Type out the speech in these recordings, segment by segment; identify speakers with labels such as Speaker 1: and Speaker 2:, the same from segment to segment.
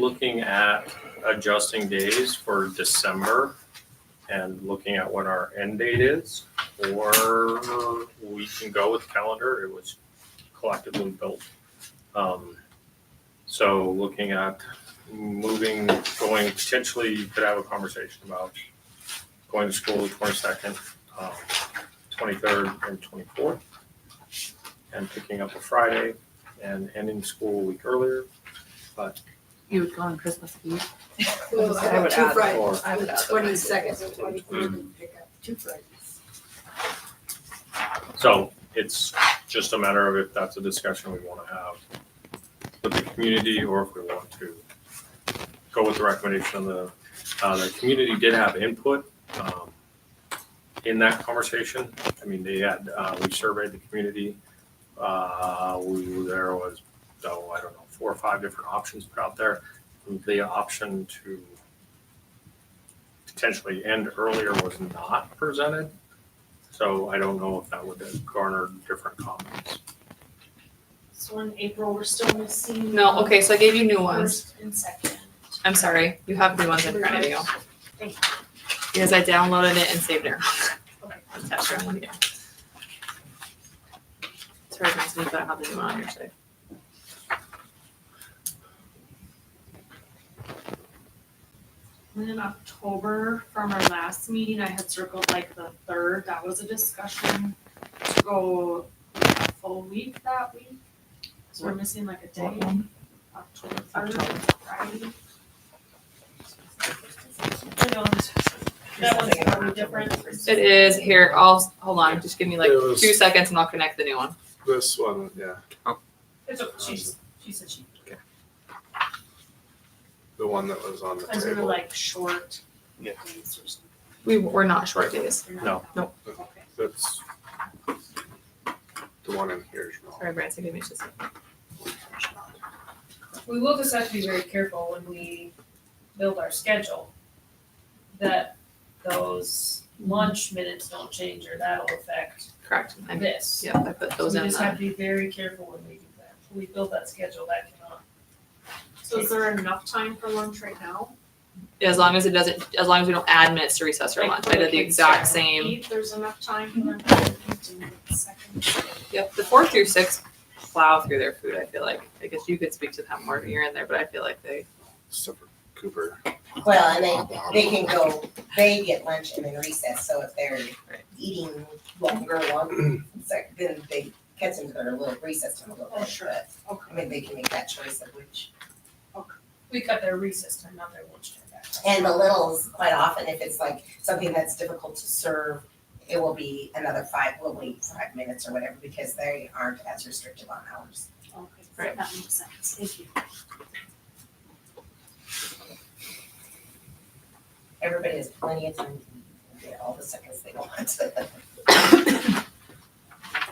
Speaker 1: looking at adjusting days for December and looking at when our end date is, or we can go with the calendar. It was collectively built. Um, So looking at moving, going, potentially you could have a conversation about going to school the twenty-second, um, twenty-third, and twenty-fourth, and picking up a Friday and ending school a week earlier.
Speaker 2: You would go on Christmas Eve.
Speaker 3: Well, I
Speaker 4: I
Speaker 3: have
Speaker 4: would
Speaker 3: two
Speaker 4: add-
Speaker 3: Fridays,
Speaker 1: Or
Speaker 4: I would
Speaker 3: the
Speaker 4: add that.
Speaker 3: twenty-second and twenty-third, and pick up two Fridays.
Speaker 1: So it's just a matter of if that's a discussion we want to have with the community or if we want to go with the recommendation of the, uh, the community did have input, um, in that conversation. I mean, they had, uh, we surveyed the community. Uh, we, there was, though, I don't know, four or five different options put out there. The option to potentially end earlier was not presented. So I don't know if that would garner different comments.
Speaker 5: So in April, we're still missing.
Speaker 2: No, okay, so I gave you new ones.
Speaker 5: First and second.
Speaker 2: I'm sorry, you have new ones in front of you. Because I downloaded it and saved it.
Speaker 5: Okay.
Speaker 2: Attached to one here. Sorry, guys, but I have the new one on here, so.
Speaker 5: And in October, from our last meeting, I had circled like the third, that was a discussion to go a full week that week. So we're missing like a day, October third, Friday. That one's probably different.
Speaker 2: It is here, I'll, hold on, just give me like
Speaker 6: It was-
Speaker 2: two seconds and I'll connect the new one.
Speaker 6: This one, yeah,
Speaker 5: It's, okay, she's, she said she,
Speaker 6: the one that was on the
Speaker 5: because we were
Speaker 6: table.
Speaker 5: like short.
Speaker 6: Yeah.
Speaker 5: days or something.
Speaker 2: We, we're not short days.
Speaker 5: They're not
Speaker 1: No.
Speaker 5: that-
Speaker 2: Nope.
Speaker 5: Okay.
Speaker 6: That's the one in here is wrong.
Speaker 2: Sorry, Branson, give me just a second.
Speaker 7: we will just have to be very careful when we build our schedule that those lunch minutes don't change or that'll affect
Speaker 2: Correct, I'm,
Speaker 7: this.
Speaker 2: yeah, I put those
Speaker 7: So
Speaker 2: in.
Speaker 7: we just
Speaker 2: uh,
Speaker 7: have to be very careful when we do that. When we build that schedule, that cannot.
Speaker 5: So is there enough time for lunch right now?
Speaker 2: As long as it doesn't, as long as we don't add minutes to recess or
Speaker 5: Like,
Speaker 2: lunch,
Speaker 5: for
Speaker 2: I did the
Speaker 5: kids
Speaker 2: exact
Speaker 5: to
Speaker 2: same.
Speaker 5: eat, There's enough time for them to do the second.
Speaker 2: Yep, the four through six plow through their food, I feel like. I guess you could speak to that more, you're in there, but I feel like they,
Speaker 6: Except for Cooper.
Speaker 8: Well, and they, they can go, they get lunch and then recess, so if they're
Speaker 2: Right.
Speaker 8: eating longer, longer, it's like, then they catch into their little recess time a little
Speaker 7: Oh,
Speaker 8: bit,
Speaker 7: sure.
Speaker 8: but, I
Speaker 7: Okay.
Speaker 8: mean, they can make that choice of which.
Speaker 7: We cut their recess time, not their lunch time back.
Speaker 8: And the littles, quite often, if it's like something that's difficult to serve, it will be another five, we'll wait five minutes or whatever, because they aren't as restrictive on hours.
Speaker 5: Okay,
Speaker 2: Right.
Speaker 5: that makes sense, thank you.
Speaker 8: Everybody has plenty of time to get all the seconds they want.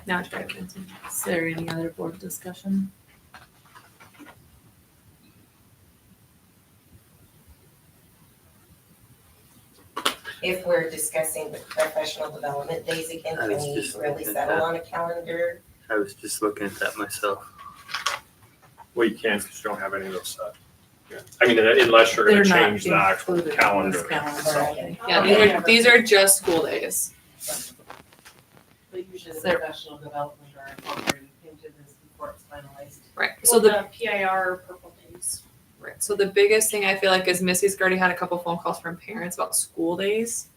Speaker 2: now it's very expensive. Is there any other board discussion?
Speaker 8: if we're discussing the professional development days again,
Speaker 9: I
Speaker 8: can
Speaker 9: was
Speaker 8: we
Speaker 9: just
Speaker 8: really
Speaker 9: thinking
Speaker 8: settle
Speaker 9: that.
Speaker 8: on a calendar?
Speaker 9: I was just looking at that myself.
Speaker 1: Well, you can't because you don't have any of those
Speaker 6: Yeah.
Speaker 1: set. I mean, unless you're gonna
Speaker 10: They're not
Speaker 1: change the actual
Speaker 10: included in this
Speaker 1: calendar.
Speaker 10: calendar.
Speaker 1: itself.
Speaker 2: Yeah, these are, these are just school days.
Speaker 10: But usually the
Speaker 2: There-
Speaker 10: professional development are incorporated into this before it's finalized.
Speaker 2: Right, so the,
Speaker 5: PIR purple days.
Speaker 2: right, so the biggest thing I feel like is Missy's already had a couple phone calls from parents about school days.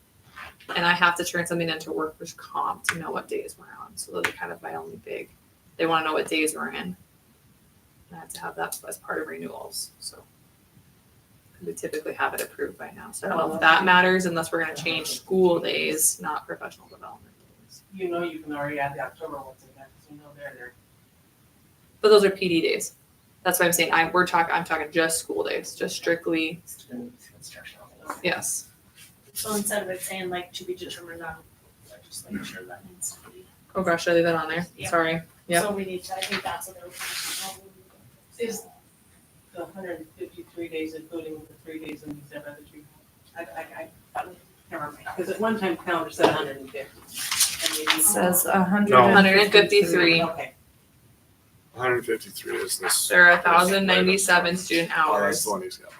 Speaker 2: And I have to turn something into workers comp to know what days we're on, so those are kind of my only big, they wanna know what days we're in. And I have to have that as part of renewals, so. We typically have it approved by now, so I don't know if that matters unless we're gonna change school days, not professional development days.
Speaker 10: You know, you can already add the October ones in there, because you know they're there.
Speaker 2: But those are PD days. That's what I'm saying, I, we're talking, I'm talking just school days, just strictly,
Speaker 8: Student instructional days.
Speaker 2: yes,
Speaker 5: So instead of it saying like to be determined on legislature, that needs to be.
Speaker 2: oh gosh, I leave that on there,
Speaker 5: Yeah.
Speaker 2: sorry. Yep.
Speaker 5: So we need to, I think that's what they're. looking for.
Speaker 10: Is the hundred and fifty-three days, including the three days in December that you, I, I, I, never mind, because at one time calendar said hundred and fifty.
Speaker 4: Says a
Speaker 1: No.
Speaker 4: hundred
Speaker 2: Hundred and fifty-three,
Speaker 10: Okay.
Speaker 6: 153 is this.
Speaker 2: There are 1,097 student
Speaker 6: Oh, that's
Speaker 2: hours.
Speaker 6: Oh, the one he's got.